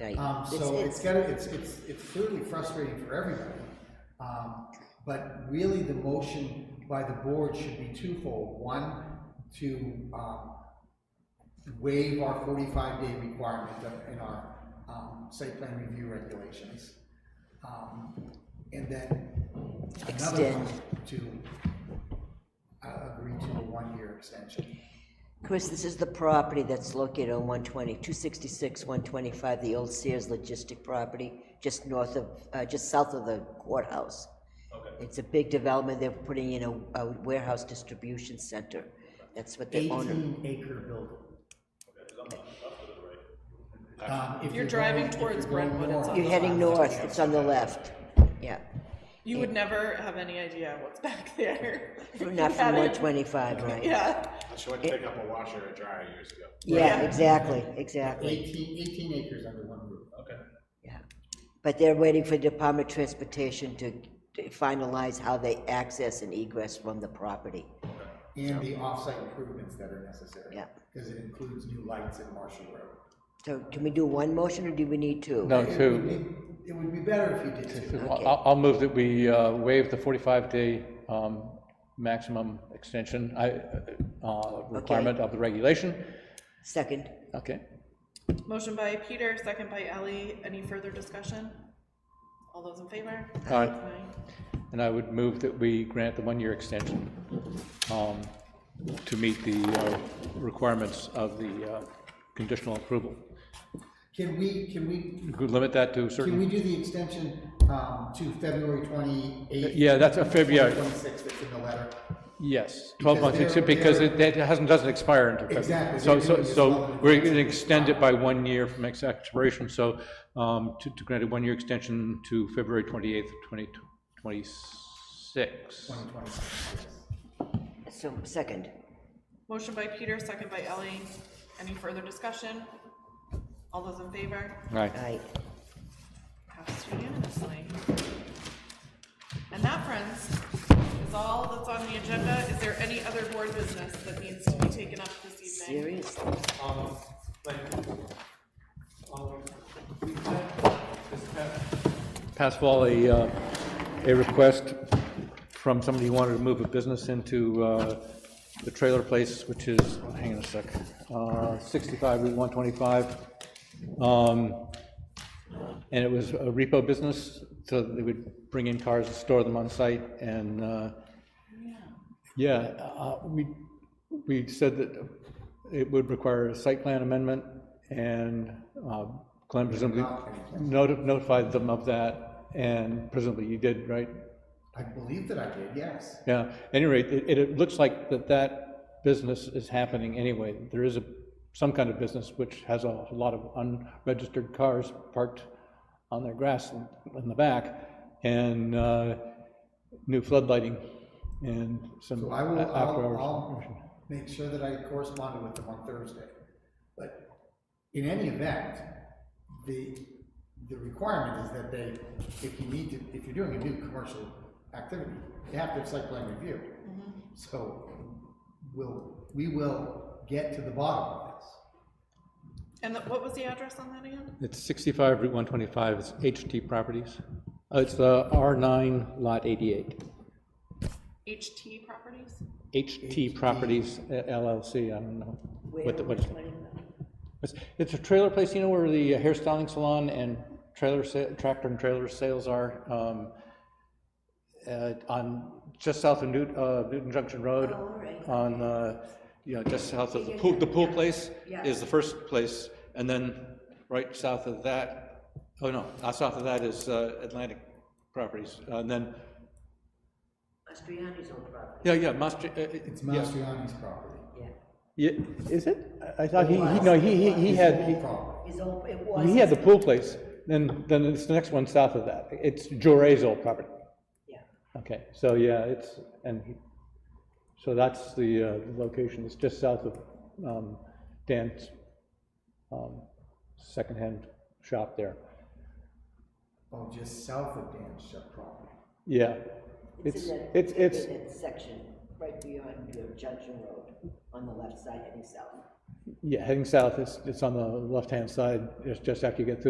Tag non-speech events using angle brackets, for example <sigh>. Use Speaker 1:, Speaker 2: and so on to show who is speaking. Speaker 1: Right.
Speaker 2: Um,
Speaker 1: It's-
Speaker 2: so
Speaker 1: it's-
Speaker 2: it's gotta, it's, it's, it's clearly frustrating for everybody. Um, but really the motion by the board should be twofold. One, to, um, waive our forty-five day requirement of- in our, um, site plan review regulations. Um, and then another one to uh, agree to a one-year extension.
Speaker 1: Chris, this is the property that's located on 120, 266, 125, the old Sears logistic property, just north of, uh, just south of the courthouse.
Speaker 3: Okay.
Speaker 1: It's a big development, they're putting in a- a warehouse distribution center. That's what they own.
Speaker 2: Eighteen acre building. Um, if
Speaker 4: You're driving
Speaker 2: going- if
Speaker 4: towards
Speaker 2: you're going
Speaker 4: Brentwood, it's
Speaker 2: north,
Speaker 4: on
Speaker 1: You're heading
Speaker 2: left.
Speaker 1: north, it's on the left, yeah.
Speaker 4: You would never have any idea what's <laughs> back there. if you
Speaker 1: Not from
Speaker 4: had it.
Speaker 1: 125, right?
Speaker 4: Yeah,
Speaker 3: She went to pick up a washer and dryer years ago.
Speaker 1: Yeah,
Speaker 4: Yeah.
Speaker 1: exactly, exactly,
Speaker 2: 18 18 acres under one roof.
Speaker 3: Okay.
Speaker 1: yeah. But they're waiting for Department of Transportation to to finalize how they access and egress from the property.
Speaker 2: And the off-site improvements that are necessary.
Speaker 1: Yeah.
Speaker 2: Because it includes new lights at Marshall Road.
Speaker 1: So can we do one motion, or do we need two?
Speaker 5: No,
Speaker 2: It
Speaker 5: two.
Speaker 2: would be- It would be better if you did two.
Speaker 5: Well, I'll, I'll move that we uh, waive the 45-day maximum extension I- uh, requirement of the regulation.
Speaker 1: Second,
Speaker 5: Okay,
Speaker 4: motion by Peter, second by Ellie, any further discussion? All those in favor?
Speaker 5: all right.
Speaker 4: Aye.
Speaker 5: And I would move that we grant the one-year extension um, to meet the uh, requirements of the uh, conditional approval.
Speaker 2: Can we, can we,
Speaker 5: You could limit that to a
Speaker 2: can we
Speaker 5: certain,
Speaker 2: do the extension um, to February 28th?
Speaker 5: Yeah, that's a February.
Speaker 2: 26th, that's in the letter.
Speaker 5: yes, 12 months,
Speaker 2: Because they're-
Speaker 5: because
Speaker 2: they're-
Speaker 5: it that hasn't, doesn't expire until February.
Speaker 2: Exactly, they're
Speaker 5: So, so,
Speaker 2: doing this all
Speaker 5: so
Speaker 2: in
Speaker 5: we're
Speaker 2: advance.
Speaker 5: going to extend it by one year from its expiration, so um, to to grant a one-year extension to February 28th, 2026.
Speaker 2: 2026, yes.
Speaker 1: so, second,
Speaker 4: Motion by Peter, second by Ellie, any further discussion? All those in favor?
Speaker 5: Right,
Speaker 1: aye.
Speaker 4: Passed unanimously. And that, friends, is all that's on the agenda. Is there any other board business that needs to be taken up this evening?
Speaker 1: Seriously,
Speaker 6: Um, like, um, we had this past
Speaker 5: pass fall a, uh, a request from somebody who wanted to move a business into uh, the trailer place, which is, oh, hang on a sec, uh, 65 Route 125. Um, And it was a repo business, so they would bring in cars and store them on site, and, uh, yeah, uh, we, we said that it would require a site plan amendment, and uh, Glenn presumably noti- notified them of that, and presumably you did, right?
Speaker 2: I believe that I did, yes.
Speaker 5: Yeah, at any rate, it, it- it looks like that that business is happening anyway. There is a, some kind of business which has a lot of unregistered cars parked on their grass in- in the back, and uh, new floodlighting and some
Speaker 2: So
Speaker 5: a-
Speaker 2: I will, I'll,
Speaker 5: after-hours.
Speaker 2: I'll make sure that I corresponded with them on Thursday. But in any event, the, the requirement is that they, if you need to, if you're doing a new commercial activity, you have to have site plan review. So we'll, we will get to the bottom of this.
Speaker 4: And the- what was the address on that again?
Speaker 5: It's 65 Route 125, it's HT Properties. Uh, It's the R9 Lot 88.
Speaker 4: HT Properties?
Speaker 5: HT Properties LLC, I don't know. what the- what it's-
Speaker 4: Is
Speaker 5: It's, it's a trailer place, you know where the hairstyling salon and trailer, sa- tractor and trailer sales are? um, uh, On, just south of Newt, uh, Newton Junction Road. On, uh, you know, just south of the pool, the pool place is the first place. And then right south of that, oh no, uh, south of that is uh, Atlantic Properties. And then,
Speaker 1: Mastriani's old property,
Speaker 5: yeah, yeah, Mastri, uh, uh,
Speaker 2: It's
Speaker 5: yeah.
Speaker 2: Mastriani's property.
Speaker 1: yeah.
Speaker 5: Yeah, is it? I- I thought he, he, no, he, he- he had, he-
Speaker 2: Old property.
Speaker 1: His old, it
Speaker 5: he had the pool place, then, then it's the next one south of that. It's Jore's old property.
Speaker 1: yeah.
Speaker 5: Okay, so yeah, it's, and he, so that's the uh, location, it's just south of um, Dan's um, secondhand shop there.
Speaker 2: Oh, just south of Dan's shop property.
Speaker 5: Yeah, it's, it's, it's,
Speaker 1: In that section, right beyond your Junction Road, on the left side heading south.
Speaker 5: yeah, heading south, it's, it's on the left-hand side, just, just after you get through